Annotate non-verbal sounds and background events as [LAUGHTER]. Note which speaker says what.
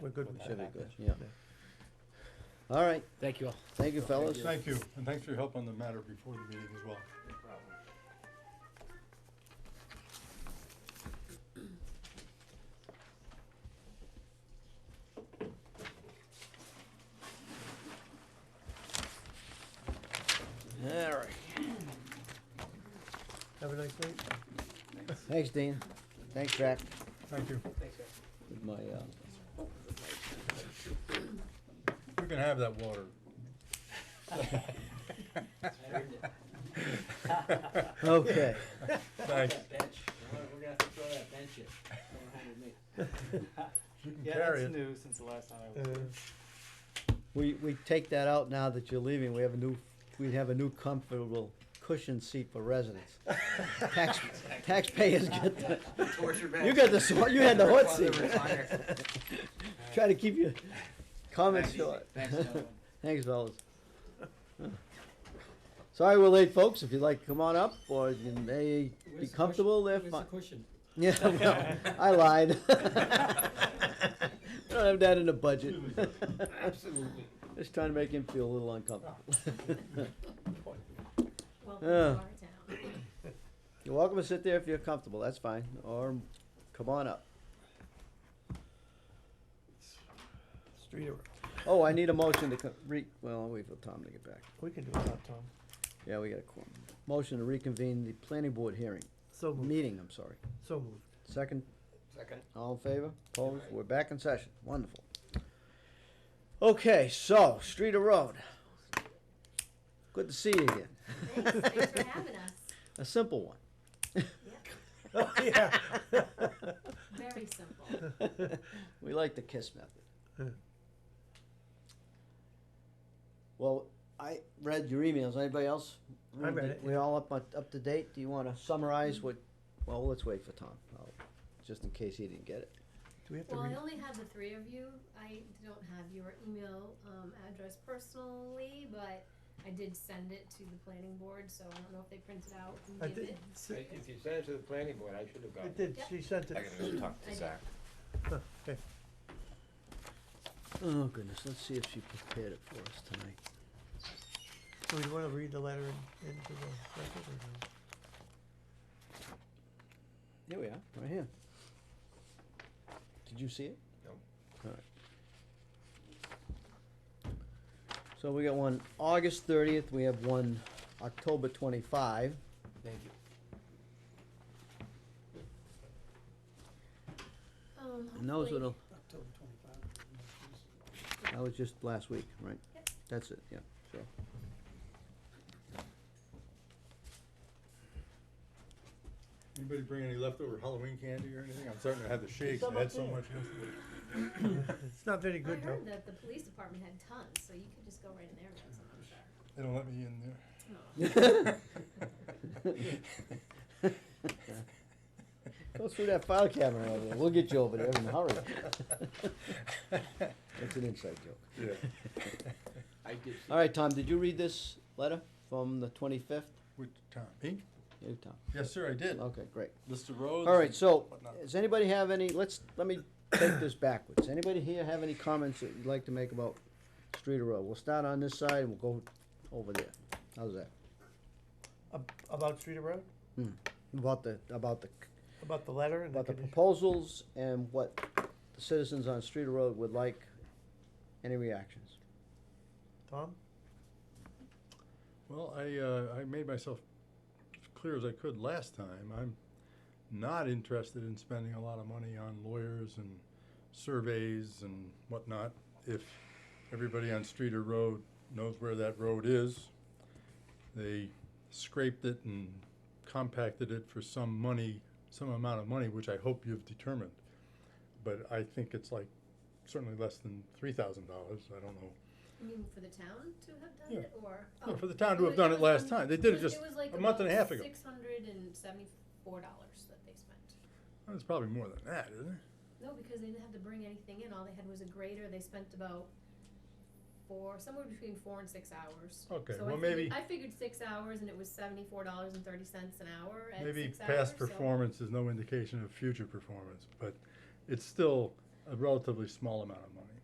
Speaker 1: We're good with
Speaker 2: Should be
Speaker 1: that.
Speaker 2: good, yeah. All right,
Speaker 3: Thank you all.
Speaker 2: thank you, fellas.
Speaker 4: Thank you, and thanks for your help on the matter before the meeting as well.
Speaker 2: All right.
Speaker 1: Have a nice night.
Speaker 2: Thanks, Dean. Thanks, Jack.
Speaker 4: Thank you.
Speaker 2: With my, uh,
Speaker 4: We can have that water.
Speaker 2: okay.
Speaker 4: Thanks.
Speaker 3: Bench, we're gonna have to throw that bench in. Don't hold me.
Speaker 4: You can
Speaker 5: [LAUGHS] Yeah,
Speaker 4: carry
Speaker 5: that's
Speaker 4: it.
Speaker 5: new since the last time I was.
Speaker 1: Uh,
Speaker 2: We, we take that out now that you're leaving. We have a new, we have a new comfortable cushion seat for residents.
Speaker 3: [LAUGHS]
Speaker 2: Tax, taxpayers get the,
Speaker 3: Torture
Speaker 2: you got the, sw- you had the hot seat. [LAUGHS] Try to keep your comments short.
Speaker 3: Thanks, gentlemen.
Speaker 2: [LAUGHS] Thanks, fellas. Sorry we're late, folks. If you'd like to come on up or you may be comfortable, they're fine.
Speaker 3: cushion?
Speaker 2: Yeah, well, I lied. [LAUGHS] I don't have that in the budget. [LAUGHS]
Speaker 3: Absolutely.
Speaker 2: Just trying to make him feel a little uncomfortable. [LAUGHS]
Speaker 6: Welcome to
Speaker 2: Yeah.
Speaker 6: our town. [LAUGHS]
Speaker 2: You're welcome to sit there if you're comfortable, that's fine, or come on up.
Speaker 1: Street, or-
Speaker 2: Oh, I need a motion to co- re, well, I'll wait for Tom to get back.
Speaker 1: we can do it without Tom.
Speaker 2: Yeah, we got a quorum. Motion to reconvene the planning board hearing,
Speaker 1: So moved,
Speaker 2: meeting, I'm sorry.
Speaker 1: so moved.
Speaker 2: Second,
Speaker 3: Second.
Speaker 2: all in favor? Opposed? We're back in session, wonderful. Okay, so, street or road? Good to see you again.
Speaker 6: Thanks,
Speaker 2: [LAUGHS]
Speaker 6: thanks for having us.
Speaker 2: A simple one.
Speaker 1: [LAUGHS] Oh, yeah. [LAUGHS]
Speaker 6: Very simple.
Speaker 2: we like the kiss
Speaker 1: Yeah.
Speaker 2: method. well, I read your emails. Anybody else?
Speaker 1: I read it,
Speaker 2: We all up on, up to date. Do you want to summarize what? Well, let's wait for Tom, I'll, just in case he didn't get it.
Speaker 1: Do we have to
Speaker 6: Well, I
Speaker 1: read?
Speaker 6: only have the three of you. I don't have your email, um, address personally, but I did send it to the planning board, so I don't know if they printed out
Speaker 1: I
Speaker 6: and gave
Speaker 1: did,
Speaker 6: it.
Speaker 7: If you sent it to the planning board, I should have
Speaker 1: it
Speaker 7: gotten it.
Speaker 1: did, she sent it.
Speaker 7: I gotta go talk
Speaker 6: I
Speaker 7: to
Speaker 6: did.
Speaker 7: Zach.
Speaker 1: [LAUGHS] Huh, okay.
Speaker 2: Oh goodness, let's see if she prepared it for us tonight.
Speaker 1: So we wanna read the letter in- into the record or no?
Speaker 2: Here we are, right here. Did you see it?
Speaker 7: No.
Speaker 2: All right. So we got one August thirtieth. We have one October twenty-five.
Speaker 7: Thank you.
Speaker 6: Um,
Speaker 2: And those
Speaker 6: hopefully-
Speaker 2: little. That was just last week, right?
Speaker 6: Yep.
Speaker 2: That's it, yeah, so.
Speaker 4: Anybody bring any leftover Halloween candy or anything? I'm starting to have the shakes. I had so much yesterday.
Speaker 1: [COUGHS] It's not very
Speaker 6: I
Speaker 1: good though.
Speaker 6: heard that the police department had tons, so you could just go right in there and get
Speaker 4: They
Speaker 6: some, I'm sure.
Speaker 4: don't let me in there.
Speaker 2: [LAUGHS]
Speaker 1: Oh.
Speaker 2: Go through that file cabinet over there, we'll get you over [LAUGHS] there in a hurry. That's an inside joke.
Speaker 4: Yeah.
Speaker 7: I did. see-
Speaker 2: [LAUGHS] All right, Tom, did you read this letter from the twenty-fifth?
Speaker 4: Which, Tom? Me?
Speaker 2: You, Tom,
Speaker 4: Yes, sir, I did.
Speaker 2: okay, great.
Speaker 4: List of roads.
Speaker 2: All right, so,
Speaker 4: whatnot.
Speaker 2: does anybody have any, let's, let me take this backwards. Anybody here have any comments that you'd like to make about street or road? We'll start on this side and we'll go over there. How's that?
Speaker 1: Ab- About Street or Road,
Speaker 2: About the, about the,
Speaker 1: about the letter and the
Speaker 2: about the
Speaker 1: condition.
Speaker 2: proposals and what the citizens on street or road would like, any reactions?
Speaker 1: Tom,
Speaker 4: Well, I, uh, I made myself as clear as I could last time. I'm not interested in spending a lot of money on lawyers and surveys and whatnot. If everybody on street or road knows where that road is, they scraped it and compacted it for some money, some amount of money, which I hope you've determined. But I think it's like certainly less than three thousand dollars. I don't know
Speaker 6: [LAUGHS] You mean for the town to have done
Speaker 4: Yeah.
Speaker 6: it, or?
Speaker 4: No,
Speaker 6: oh,
Speaker 4: for the town to have
Speaker 6: was-
Speaker 4: done it
Speaker 6: was
Speaker 4: last
Speaker 6: un-
Speaker 4: time. They did it
Speaker 6: was-
Speaker 4: just
Speaker 6: was like
Speaker 4: a month and a
Speaker 6: about
Speaker 4: half ago.
Speaker 6: Six hundred and seventy-four dollars that they spent.
Speaker 4: Well, It's probably more than that, isn't it?
Speaker 6: No, because they didn't have to bring anything in, all they had was a grader, they spent about four, somewhere between four and six hours.
Speaker 4: Okay,
Speaker 6: So I
Speaker 4: well,
Speaker 6: figured-
Speaker 4: maybe-
Speaker 6: I figured six hours and it was seventy-four dollars and thirty cents an hour at
Speaker 4: Maybe
Speaker 6: six hours,
Speaker 4: past
Speaker 6: so-
Speaker 4: performance is no indication of future performance, but it's still a relatively small amount of money.